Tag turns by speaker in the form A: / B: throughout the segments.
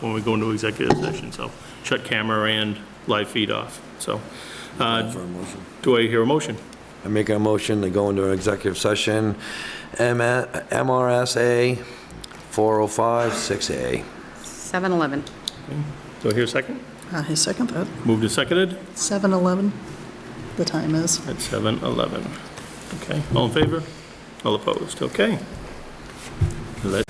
A: when we go into executive session, so shut camera and live feed off, so. uh,
B: For a motion.
A: Do I hear a motion?
B: I make a motion to go into an executive session, M- MRSA 4056A.
C: 7-Eleven.
A: Do I hear a second?
D: I Uh, second that.
A: Moved and seconded
D: 7:11, the time is.
A: at 7:11. Okay, all in favor? All opposed? Okay. Let-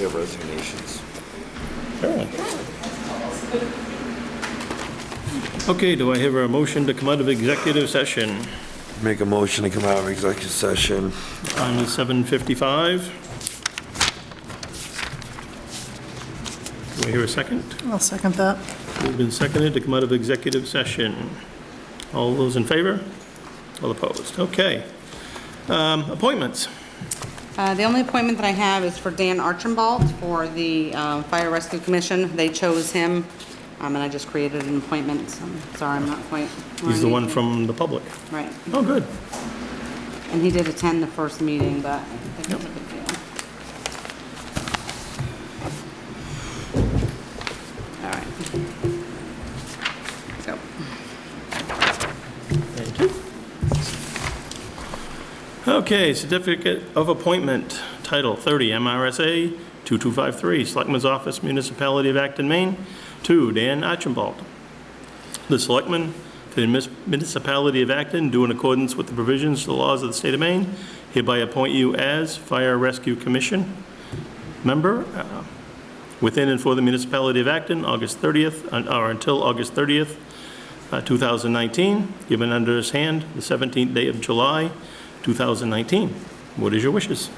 B: Your resignations.
A: Sure. Okay, do I hear a motion to come out of executive session?
B: Make a motion to come out of executive session.
A: Time is 7:55. Do I hear a second?
D: I'll second that.
A: Moved and seconded to come out of executive session. All those in favor? All opposed? Okay. Um, Appointments.
C: Uh, The only appointment that I have is for Dan Archibald for the uh, Fire Rescue Commission. They chose him, um, and I just created an appointment, so I'm sorry, I'm not quite...
A: He's the one from the public.
C: Right,
A: Oh, good.
C: and he did attend the first meeting, but I think it was a big deal. All right. Let's go.
A: Thank you. Okay, certificate of appointment, Title 30 MRSA 2253, Selectman's Office, Municipality of Acton, Maine, to Dan Archibald. The Selectman for the Munis- Municipality of Acton, do in accordance with the provisions of the laws of the state of Maine, hereby appoint you as Fire Rescue Commission member uh, within and for the Municipality of Acton, August 30th, uh, or until August 30th, uh, 2019, given under his hand the 17th day of July, 2019. What is your wishes?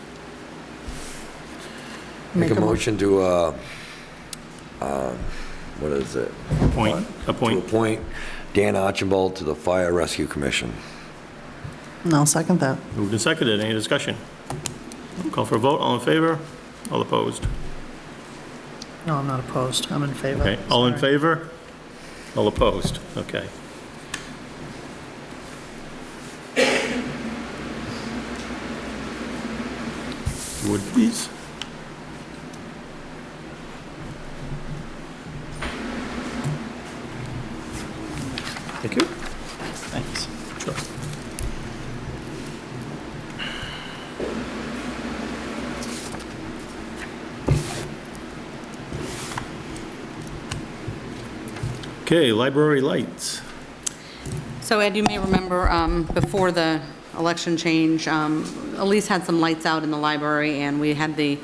B: Make a
D: mo-
B: motion to, uh, um, what is it?
A: Appoint,
B: To
A: appoint.
B: appoint Dan Archibald to the Fire Rescue Commission.
D: And I'll second that.
A: Moved and seconded. Any discussion? Call for a vote. All in favor? All opposed?
D: No, I'm not opposed. I'm in favor.
A: Okay. All in
D: Sorry.
A: favor? All opposed? Okay. Would please? Thank you.
D: Thanks.
A: Sure. Okay, library lights.
C: So Ed, you may remember, um, before the election change, um, Elise had some lights out in the library, and we had the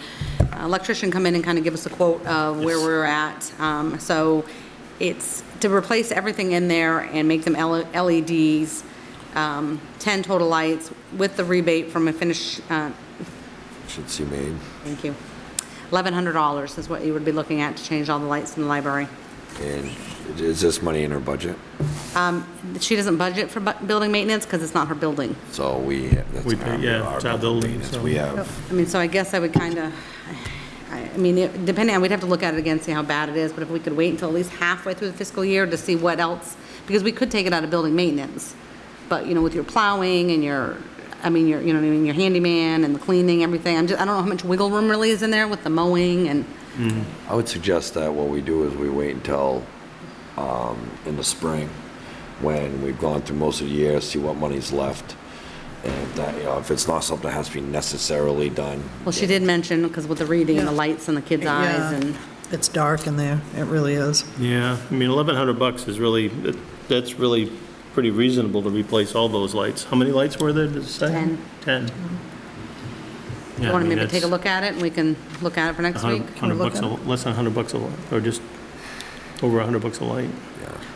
C: electrician come in and kind of give us a quote of where
A: Yes.
C: we're at. Um, So it's to replace everything in there and make them L- LEDs, um, 10 total lights with the rebate from a finish, uh,
B: Should see me.
C: thank you, $1,100 is what you would be looking at to change all the lights in the library.
B: And is this money in her budget?
C: She doesn't budget for bu- building maintenance because it's not her building.
B: So we, that's.
A: We pay- yeah,
B: our
A: it's our building,
B: maintenance.
A: so-
B: We have,
C: I mean, so I guess I would kind of, I I mean, it- depending, on we'd have to look at it again, see how bad it is, but if we could wait until at least halfway through the fiscal year to see what else, because we could take it out of building maintenance, but, you know, with your plowing and your, I mean, your, you know, what I mean, your handyman and the cleaning, everything, I'm just, I don't know how much wiggle room really is in there with the mowing and,
B: I would suggest that what we do is we wait until um, in the spring, when we've gone through most of the year, see what money's left. And if that, you know, if it's not something that has to be necessarily done.
C: well, she did mention, because with the reading and the
D: Yeah.
C: lights and the kids' eyes
D: Yeah.
C: and,
D: It's dark in there. It really is.
A: Yeah, I mean, 1,100 bucks is really, that- that's really pretty reasonable to replace all those lights. How many lights were there, did it say?
C: Ten.
A: 10.
C: you want to maybe take a look at it and we can look at it for next week?
A: 100 bucks, a- less than 100 bucks a light, or just over 100 bucks a light.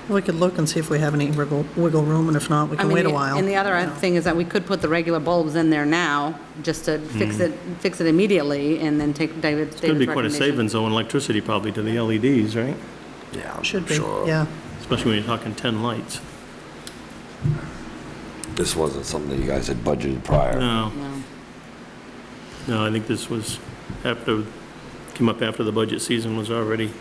D: We could look and see if we have any wiggle, wiggle room, and if not, we
C: I
D: can
C: mean,
D: wait a
C: the-
D: while.
C: And the other
D: you know.
C: thing is that we could put the regular bulbs in there now, just to fix
D: Mm.
C: it, fix it immediately, and then take David, David's
A: Could be quite a
C: recommendation.
A: savings, though, in electricity probably to the LEDs, right?
B: Yeah, I'm
D: Should be,
B: sure.
D: yeah.
A: Especially when you're talking 10 lights.
B: This wasn't something that you guys had budgeted prior.
A: No,
C: No.
A: no, I think this was after, came up after the budget season was already